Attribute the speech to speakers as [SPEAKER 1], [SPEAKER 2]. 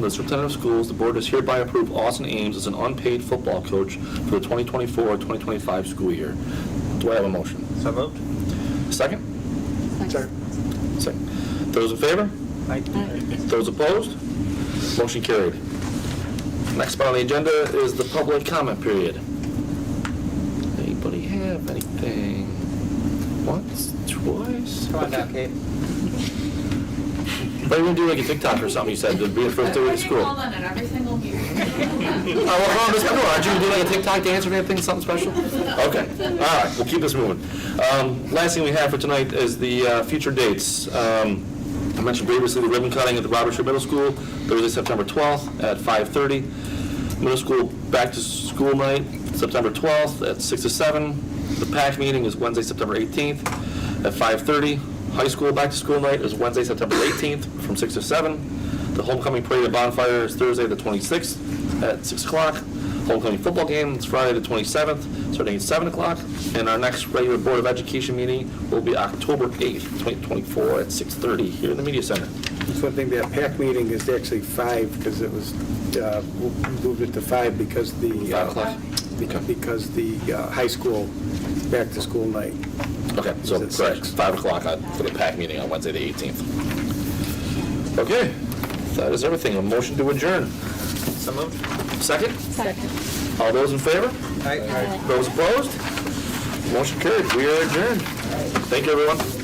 [SPEAKER 1] The superintendent of schools, the board does hereby approve Austin Ames as an unpaid football coach for the 2024-2025 school year. Do I have a motion?
[SPEAKER 2] So moved.
[SPEAKER 1] Second?
[SPEAKER 2] Second.
[SPEAKER 1] Second. Those in favor? Those opposed? Motion carried. Next on the agenda is the public comment period. Anybody have anything? Once, twice?
[SPEAKER 2] Come on down, Kate.
[SPEAKER 1] What are you gonna do, like a TikTok or something, you said, to be the first day of school?
[SPEAKER 3] Hold on, it every single year.
[SPEAKER 1] Oh, well, hold on, just- no, aren't you gonna do like a TikTok dance or anything, something special? Okay, all right, we'll keep this moving. Um, Last thing we have for tonight is the uh, future dates. Um, I mentioned previously the ribbon cutting at the Robert Sher Middle School, Thursday, September 12th at 5:30. Middle school back to school night, September 12th at 6 to 7. The PAC meeting is Wednesday, September 18th at 5:30. High school back to school night is Wednesday, September 18th from 6 to 7. The homecoming parade at Bonfire is Thursday, the 26th at 6 o'clock. Homecoming football game is Friday, the 27th, starting at 7 o'clock. And our next regular Board of Education meeting will be October 8th, 2024, at 6:30 here in the Media Center.
[SPEAKER 4] It's one thing, that PAC meeting is actually five, because it was, uh, moved it to five because the. uh,
[SPEAKER 1] Five o'clock?
[SPEAKER 4] beca- Because the uh, high school, back-to-school night.
[SPEAKER 1] Okay, so,
[SPEAKER 4] Is it
[SPEAKER 1] correct,
[SPEAKER 4] six?
[SPEAKER 1] 5 o'clock on- for the PAC meeting on Wednesday, the 18th. Okay, that is everything. A motion to adjourn.
[SPEAKER 2] So moved.
[SPEAKER 1] Second?
[SPEAKER 3] Second.
[SPEAKER 1] All those in favor?
[SPEAKER 2] Aye.
[SPEAKER 1] Those opposed? Motion carried. We are adjourned. Thank you, everyone.